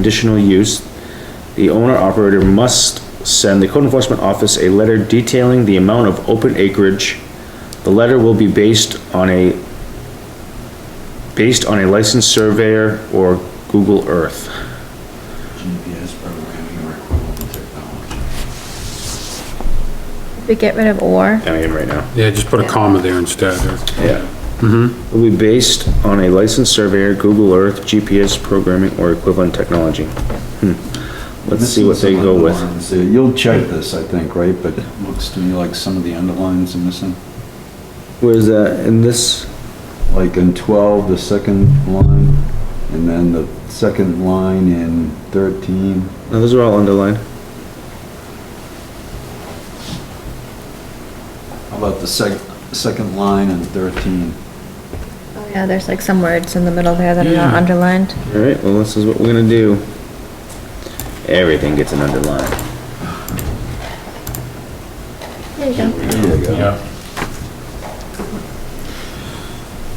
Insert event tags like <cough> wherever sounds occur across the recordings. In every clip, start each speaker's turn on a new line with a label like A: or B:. A: conditional use, the owner operator must send the code enforcement office a letter detailing the amount of open acreage. The letter will be based on a, based on a licensed surveyor or Google Earth.
B: GPS programming or equivalent technology.
C: We get rid of or,
A: I am right now.
D: Yeah, just put a comma there instead. or-
A: Yeah. Mm-hmm. Will be based on a licensed surveyor, Google Earth, GPS programming, or equivalent technology. Hmm. Let's see what they
B: Missing some
A: go with.
B: underlines there. You'll check this, I think, right? But it looks to me like some of the underlines are missing.
A: Where's that, in this,
B: Like in 12, the second line, and then the second line in 13.
A: no, those are all underlined.
B: How about the sec, second line in 13?
C: oh yeah, there's like some words in the middle there that are not
D: Yeah.
C: underlined.
A: Alright, well, this is what we're gonna do. Everything gets an underline.
C: There you go.
B: There you go.
D: Yeah.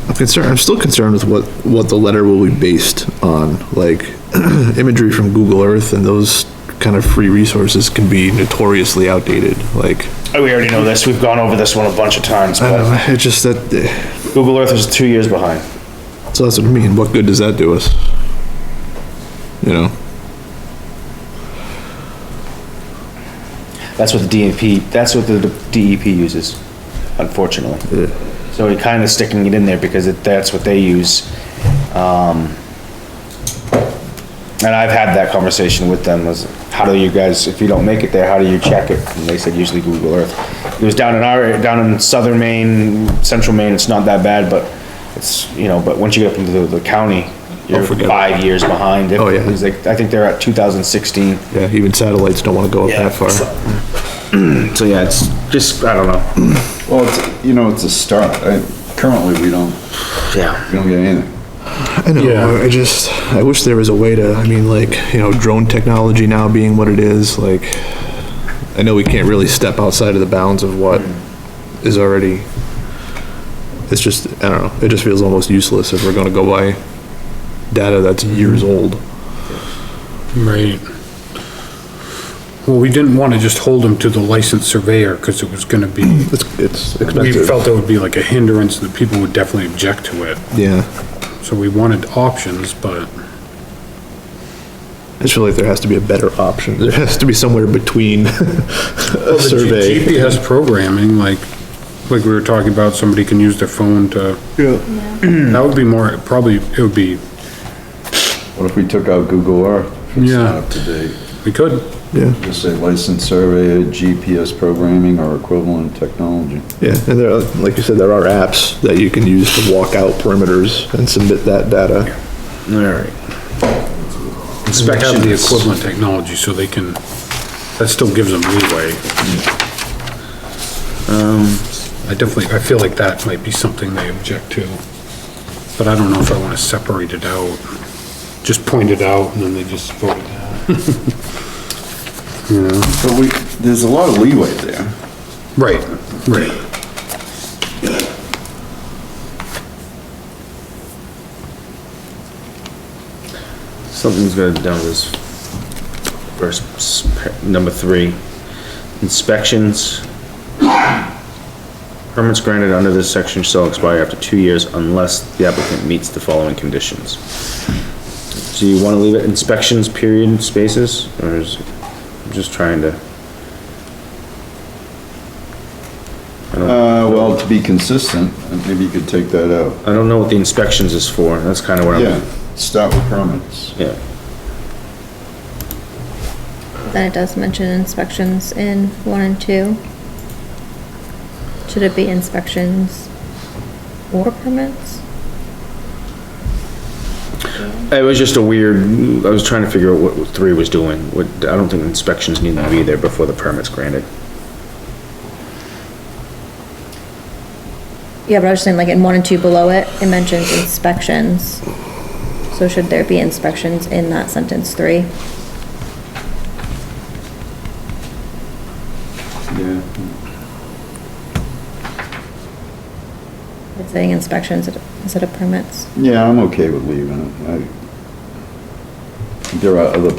E: I'm concerned, I'm still concerned with what, what the letter will be based on, like, <clears throat> imagery from Google Earth and those kind of free resources can be notoriously outdated, like,
A: Oh, we already know this, we've gone over this one a bunch of times,
E: I don't
A: but
E: know, it's just that, eh,
A: Google Earth is two years behind.
E: so that's what I mean, what good does that do us? You know,
A: That's what the DEP, that's what the DEP uses, unfortunately. So we're kinda sticking it in there because it, that's what they use. Um, And I've had that conversation with them, was how do you guys, if you don't make it there, how do you check it? And they said usually Google Earth. It was down in our, down in southern Maine, central Maine, it's not that bad, but it's, you know, but once you get up into the- the county, you're
E: forget it.
A: five years behind.
E: Oh, yeah.
A: It's like- I think they're at two thousand sixteen.
E: yeah, even satellites don't wanna go up that far.
A: So yeah, it's just, I don't know.
B: Well, it's, you know, it's a start. I- Currently, we don't,
A: Yeah.
B: we don't get anything.
E: I know,
D: Yeah.
E: I just, I wish there was a way to, I mean, like, you know, drone technology now being what it is, like, I know we can't really step outside of the bounds of what is already, it's just, I don't know, it just feels almost useless if we're gonna go by data that's years old.
D: Right. Well, we didn't want to just hold them to the licensed surveyor because it was going to be,
E: It's, it's
D: we
E: expensive.
D: felt it would be like a hindrance that people would definitely object to it.
E: Yeah,
D: So we wanted options, but
E: I just feel like there has to be a better option, there has to be somewhere between <laughs>
D: Well,
E: a
D: the G-
E: survey.
D: GPS programming, like, like we were talking about, somebody can use their phone to,
E: Yeah.
D: that would be more, probably, it would be,
B: What if we took out Google Earth? It's not
D: Yeah.
B: up to date.
D: we could,
E: Yeah.
B: Just say licensed surveyor, GPS programming or equivalent technology.
E: Yeah, and there, are- like you said, there are apps that you can use to walk out perimeters and submit that data.
A: Alright.
D: we have the
A: Inspections.
D: equivalent technology so they can, that still gives them leeway. Um, I definitely, I feel like that might be something they object to, but I don't know if I want to separate it out. Just point it out and then they just vote it down.
B: But we, there's a lot of leeway there.
D: Right, right.
A: Something's gonna down this first, s- par- number three, inspections. Permits granted under this section shall expire after two years unless the applicant meets the following conditions. Do you wanna leave it inspections period spaces, or is, I'm just trying to,
B: Uh, well, to be consistent, maybe you could take that out.
A: I don't know what the inspections is for, that's kinda what
B: Yeah,
A: I'm,
B: start with permits.
A: yeah.
C: Then it does mention inspections in one and two. Should it be inspections or permits?
A: It was just a weird, I was trying to figure out what three was doing, what, I don't think inspections need to be there before the permit's granted.
C: Yeah, but I was just saying like in one and two below it, it mentions inspections. So should there be inspections in that sentence three?
B: Yeah.
C: It's saying inspections instead of permits.
B: Yeah, I'm okay with leaving it. I- there are other places